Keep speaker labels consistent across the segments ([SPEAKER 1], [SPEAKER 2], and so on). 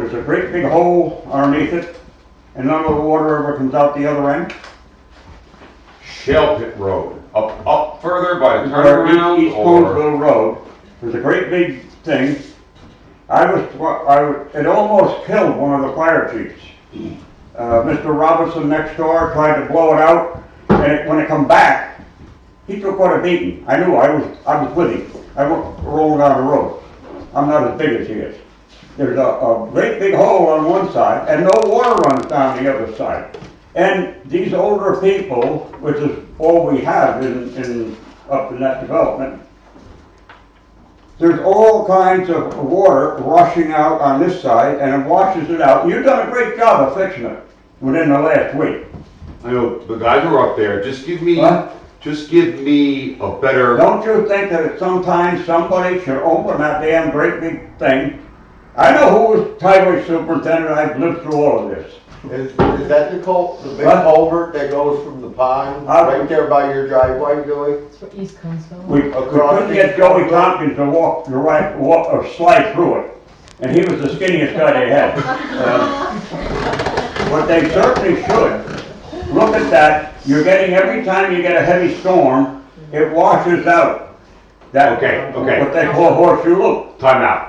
[SPEAKER 1] there's a great big hole underneath it, and none of the water ever comes out the other end.
[SPEAKER 2] Shell Pit Road, up, up further by the
[SPEAKER 1] Where
[SPEAKER 2] turnaround
[SPEAKER 1] East
[SPEAKER 2] or?
[SPEAKER 1] Conesville Road, there's a great big thing. I was, I, was- it almost killed one of the fire chiefs. Uh, Mr. Robinson next door tried to blow it out, and it, when it come back, he took quite a beating. I knew, I was, I was with him. I wa- rolled down the road. I'm not as big as he is. There's a, a great big hole on one side, and no water runs down the other side. And these older people, which is all we have in, in, up in that development, there's all kinds of water rushing out on this side, and it washes it out. You've done a great job of fixing it within the last week.
[SPEAKER 2] I know, the guys were up there, just give me,
[SPEAKER 1] What?
[SPEAKER 2] just give me a better,
[SPEAKER 1] Don't you think that at some time somebody should open that damn great big thing? I know who was highway superintendent, I've lived through all of this.
[SPEAKER 3] Is, is that the cul, the big
[SPEAKER 1] What?
[SPEAKER 3] culvert that goes from the pond,
[SPEAKER 1] Uh,
[SPEAKER 3] right there by your driveway, Joey?
[SPEAKER 4] For East Coastville.
[SPEAKER 1] We we couldn't get Joey Tompkins to walk, to right, walk, or slide through it, and he was the skinniest guy they had. Uh, But they certainly should. Look at that, you're getting, every time you get a heavy storm, it washes out. That-
[SPEAKER 2] Okay, okay.
[SPEAKER 1] What they call horseshoe loop.
[SPEAKER 2] timeout.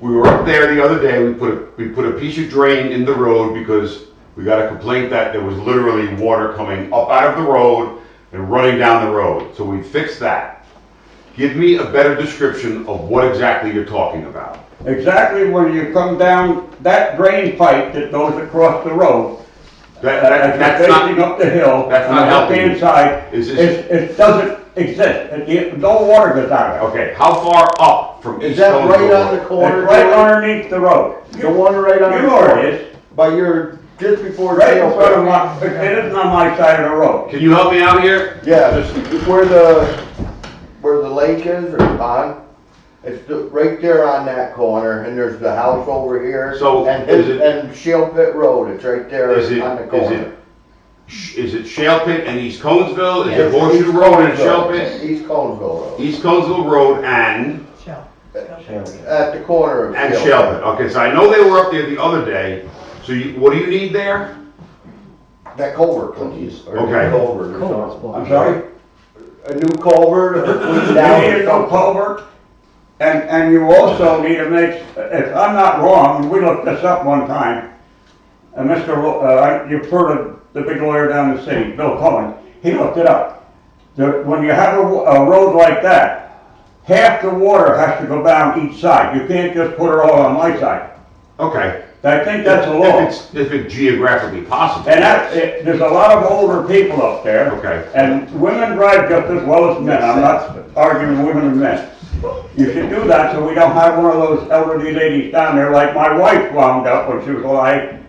[SPEAKER 2] We were up there the other day, we put, a we put a piece of drain in the road because we got a complaint that there was literally water coming up out of the road and running down the road, so we fixed that. Give me a better description of what exactly you're talking about.
[SPEAKER 1] Exactly when you come down that drain pipe that goes across the road,
[SPEAKER 2] That,
[SPEAKER 1] as
[SPEAKER 2] that,
[SPEAKER 1] you're
[SPEAKER 2] that's
[SPEAKER 1] facing
[SPEAKER 2] not,
[SPEAKER 1] up the hill, on the
[SPEAKER 2] that's not helping
[SPEAKER 1] left-hand
[SPEAKER 2] you.
[SPEAKER 1] side,
[SPEAKER 2] Is
[SPEAKER 1] it,
[SPEAKER 2] this-
[SPEAKER 1] it doesn't exist. It- it- no water goes out of it.
[SPEAKER 2] okay, how far up from East
[SPEAKER 3] Is that right
[SPEAKER 2] Conesville
[SPEAKER 3] on the
[SPEAKER 2] Road?
[SPEAKER 3] corner?
[SPEAKER 1] It's right
[SPEAKER 3] Joey?
[SPEAKER 1] underneath the road.
[SPEAKER 3] The one right on the.
[SPEAKER 1] You know where
[SPEAKER 3] corner?
[SPEAKER 1] it is,
[SPEAKER 3] By your, just before
[SPEAKER 1] right in
[SPEAKER 3] jail.
[SPEAKER 1] front of my, it isn't on my side of the road.
[SPEAKER 2] Can you help me out here?
[SPEAKER 3] Yeah,
[SPEAKER 2] Just-
[SPEAKER 3] where the, where the lake is or the pond, it's the- right there on that corner, and there's the house over here.
[SPEAKER 2] So,
[SPEAKER 3] And
[SPEAKER 2] is
[SPEAKER 3] his,
[SPEAKER 2] it-
[SPEAKER 3] and Shell Pit Road, it's right there
[SPEAKER 2] Is it,
[SPEAKER 3] on the
[SPEAKER 2] is it,
[SPEAKER 3] corner.
[SPEAKER 2] sh- is it Shale Pit and East Conesville? Is it
[SPEAKER 3] It's
[SPEAKER 2] Horseshoe
[SPEAKER 3] East
[SPEAKER 2] Road and
[SPEAKER 3] Conesville.
[SPEAKER 2] Shale Pit?
[SPEAKER 3] East Conesville Road,
[SPEAKER 2] East Conesville Road and,
[SPEAKER 4] Shell.
[SPEAKER 3] at the corner of.
[SPEAKER 2] and
[SPEAKER 3] Shell
[SPEAKER 2] Shale
[SPEAKER 3] Pit.
[SPEAKER 2] Pit. Okay, so I know they were up there the other day. So you, what do you need there?
[SPEAKER 3] That culvert, please. or a new
[SPEAKER 2] Okay.
[SPEAKER 3] Culvert or something.
[SPEAKER 1] I'm sorry?
[SPEAKER 3] A new culvert, or clean down
[SPEAKER 1] You need a
[SPEAKER 3] or
[SPEAKER 1] new
[SPEAKER 3] something.
[SPEAKER 1] culvert, and, and you also need to make, if I'm not wrong, we looked this up one time, and Mr., Lo- uh, you've heard of the big lawyer down in the city, Bill Cohen, he looked it up. The, when you have a, wa- a road like that, half the water has to go down each side, you can't just put it all on my side.
[SPEAKER 2] Okay.
[SPEAKER 1] I think that's a
[SPEAKER 2] If
[SPEAKER 1] law.
[SPEAKER 2] it's- If it's geographically possible.
[SPEAKER 1] And that, it- there's a lot of older people up there.
[SPEAKER 2] Okay.
[SPEAKER 1] And women drive just as well as men, I'm not arguing women and men. You should do that so we don't have one of those elderly ladies down there like my wife wound up when she was alive,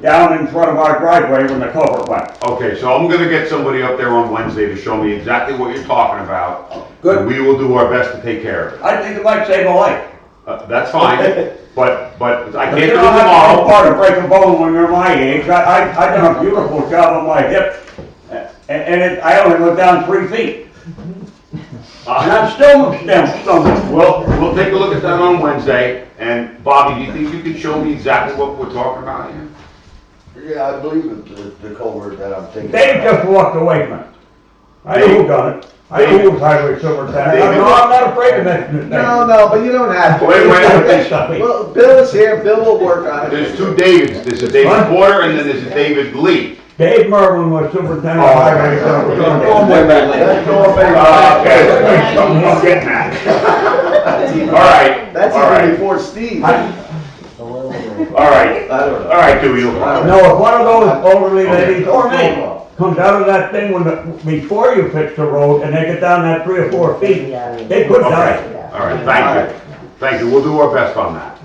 [SPEAKER 1] down in front of our driveway when the culvert went.
[SPEAKER 2] Okay, so I'm gonna get somebody up there on Wednesday to show me exactly what you're talking about.
[SPEAKER 1] Good.
[SPEAKER 2] And we will do our best to take care of it.
[SPEAKER 1] I think it might save a life.
[SPEAKER 2] Uh, that's fine, but, but I
[SPEAKER 1] But you
[SPEAKER 2] can't do it
[SPEAKER 1] don't have to go
[SPEAKER 2] tomorrow. Uh,
[SPEAKER 1] far to break a bone when you're my age, I, I, I done a beautiful job on my hip, and, and it- I only went down three feet. And
[SPEAKER 2] Uh,
[SPEAKER 1] I'm still stem- stumbling.
[SPEAKER 2] Well, we'll take a look at that on Wednesday, and Bobby, do you think you can show me exactly what we're talking about here?
[SPEAKER 3] Yeah, I believe it's the, the culvert that I'm thinking.
[SPEAKER 1] Dave
[SPEAKER 3] about.
[SPEAKER 1] just walked away from it. I know who done it. I know who was highway superintendent. I'm not, I'm not afraid of that.
[SPEAKER 5] No, no, but you don't have to.
[SPEAKER 2] Wait, wait,
[SPEAKER 5] Well, Bill is here, Bill will work on it.
[SPEAKER 2] There's two Davids, there's a David Porter and then there's a David Lee.
[SPEAKER 1] Dave Merwin was superintendent of
[SPEAKER 2] Oh.
[SPEAKER 1] highway
[SPEAKER 5] Go
[SPEAKER 1] superintendent.
[SPEAKER 5] away, man.
[SPEAKER 3] That's going
[SPEAKER 2] Uh,
[SPEAKER 3] back.
[SPEAKER 2] okay, I'm getting that. All right,
[SPEAKER 5] That's
[SPEAKER 2] all
[SPEAKER 5] even
[SPEAKER 2] right,
[SPEAKER 5] before Steve.
[SPEAKER 1] I-
[SPEAKER 2] all right,
[SPEAKER 3] I don't know.
[SPEAKER 2] all right, Dewey, you'll fine.
[SPEAKER 1] No, if one of those elderly ladies or me comes out of that thing when, the- before you fix the road and they get down that three or four feet, they could die.
[SPEAKER 2] All right, thank you, thank you, we'll do our best on that.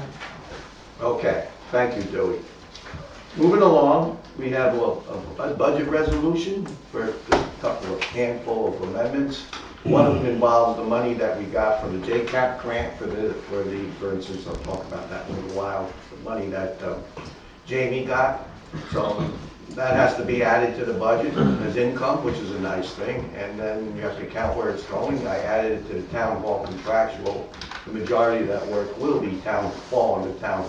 [SPEAKER 5] Okay, thank you, Joey. Moving along, we have a, a- a budget resolution for a couple of handful of amendments. One of them involves the money that we got from the JCAP grant for the, for the, for instance, I'll talk about that in a little while, the money that um, Jamie got. So that has to be added to the budget as income, which is a nice thing. And then you have to count where it's going. I added it to the town hall contractual. The majority of that work will be town, fall under town